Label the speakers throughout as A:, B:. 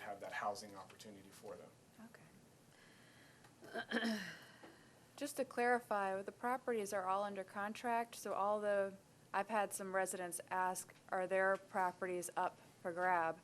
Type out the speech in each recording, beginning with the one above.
A: have that housing opportunity for them.
B: Okay. Just to clarify, the properties are all under contract, so all the, I've had some residents ask, are their properties up for grab?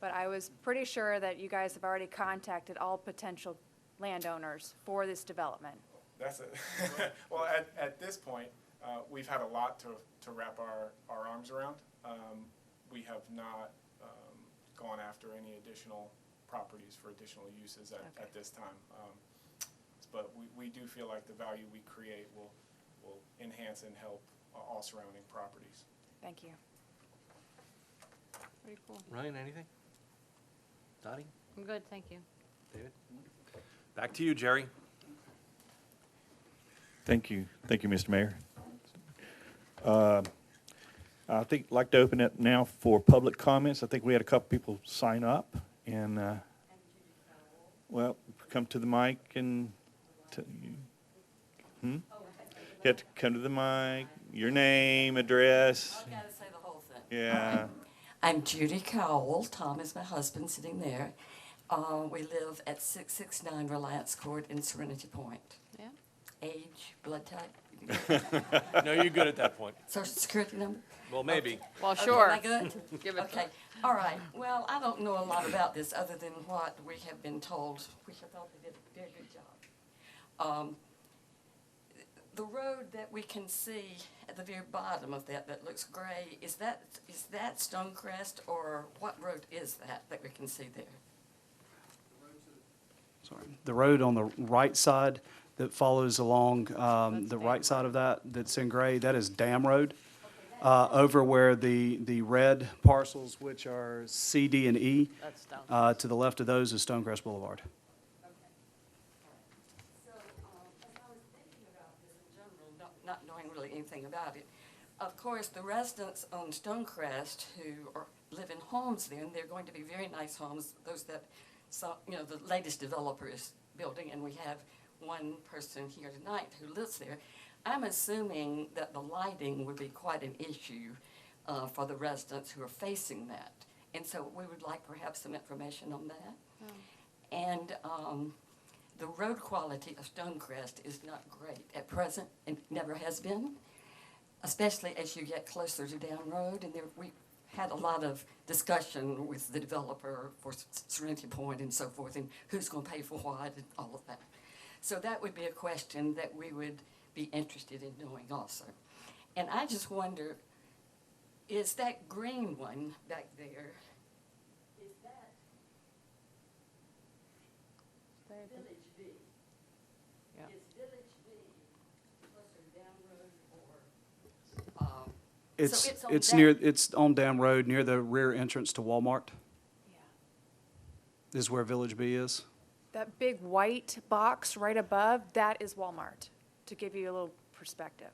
B: But I was pretty sure that you guys have already contacted all potential landowners for this development.
A: That's it. well, at, at this point, uh, we've had a lot to, to wrap our, our arms around. Um, we have not um, gone after any additional properties for additional uses at,
B: Okay.
A: at this time. Um, but we, we do feel like the value we create will, will enhance and help uh, all surrounding properties.
B: Thank you. Pretty cool.
C: Ryan, anything? Dottie,
D: I'm good, thank you.
C: David? Back to you, Jerry.
E: Thank you. Thank you, Mr. Mayor. Uh, I think, like to open it now for public comments. I think we had a couple people sign up and, uh, well, come to the mic and, t- you- hmm? You have to come to the mic, your name, address.
F: I've got to say the whole thing.
E: Yeah.
F: I'm Judy Cowell. Tom is my husband sitting there. Uh, we live at 669 Reliance Court in Serenity Point.
D: Yeah.
F: Age, blood type,
C: No, you're good at that point.
F: social security number.
C: Well, maybe.
D: Well,
F: Okay,
D: sure.
F: am I good?
D: Give it
F: Okay, all right. Well, I don't know a lot about this other than what we have been told. We have thought they did a very good job. Um, The road that we can see at the very bottom of that, that looks gray, is that, is that Stonecrest or what road is that that we can see there?
G: Sorry. The road on the right side that follows along um,
D: That's
G: the
D: Dam
G: right side of that, that's in gray, that is Dam Road. uh, Over where the, the red parcels, which are C, D, and E,
D: That's done.
G: uh, to the left of those is Stonecrest Boulevard.
F: So, um, as I was thinking about this in general, not, not knowing really anything about it, of course, the residents on Stonecrest who are, live in homes there, and they're going to be very nice homes, those that, so, you know, the latest developer is building, and we have one person here tonight who lives there. I'm assuming that the lighting would be quite an issue, uh, for the residents who are facing that. And so we would like perhaps some information on that. And um, the road quality of Stonecrest is not great at present, and never has been, especially as you get closer to Down Road. And there, we had a lot of discussion with the developer for S- Serenity Point and so forth, and who's going to pay for what and all of that. So that would be a question that we would be interested in knowing also. And I just wonder, is that green one back there, is that Village B.
D: Yeah.
F: Is Village B closer down road or, um,
G: It's,
F: it's on
G: it's near,
F: Dam-
G: it's on Dam Road, near the rear entrance to Walmart, is where Village B is.
B: That big white box right above, that is Walmart, to give you a little perspective.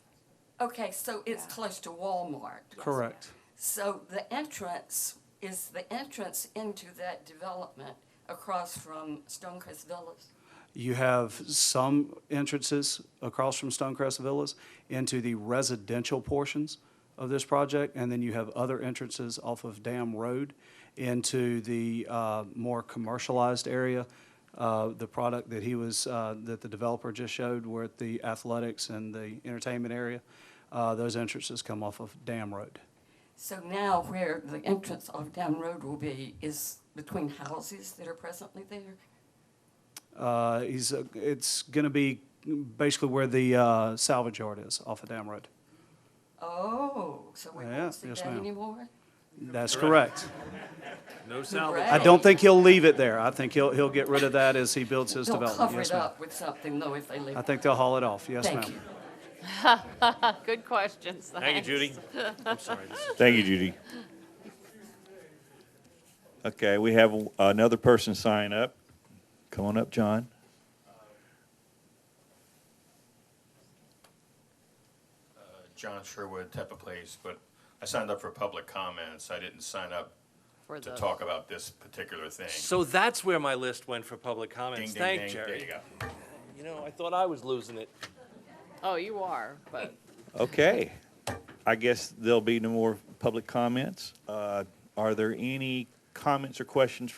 F: okay, so it's
B: Yeah.
F: close to Walmart.
G: Correct.
F: So the entrance, is the entrance into that development across from Stonecrest Villas?
G: You have some entrances across from Stonecrest Villas into the residential portions of this project, and then you have other entrances off of Dam Road into the uh, more commercialized area. Uh, The product that he was, uh, that the developer just showed were at the athletics and the entertainment area. Uh, Those entrances come off of Dam Road.
F: So now where the entrance of Down Road will be is between houses that are presently there?
G: Uh, He's, uh, it's going to be basically where the uh, salvage yard is off of Dam Road.
F: Oh, so we
G: Yeah,
F: won't see
G: yes,
F: that
G: ma'am.
F: anymore?
G: That's correct.
C: No salvage.
G: I don't think he'll leave it there. I think he'll, he'll get rid of that as he builds his
F: They'll
G: development.
F: cover
G: Yes,
F: it
G: ma'am.
F: up with something though if they leave.
G: I think they'll haul it off. Yes,
F: Thank
G: ma'am.
F: you.
D: Good questions,
C: Thank you,
D: thanks.
C: Judy. I'm sorry. this is-
E: Thank you, Judy. Okay, we have another person sign up. Come on up, John.
H: John Sherwood, Tepa Place, but I signed up for public comments. I didn't sign up
D: For
H: to
D: the-
H: talk about this particular thing.
C: So that's where my list went for public
H: Ding,
C: comments.
H: ding,
C: Thank
H: ding. There you
C: Jerry.
H: go.
C: You know, I thought I was losing it.
D: Oh, you are, but
E: Okay. I guess there'll be no more public comments. Uh, Are there any comments or questions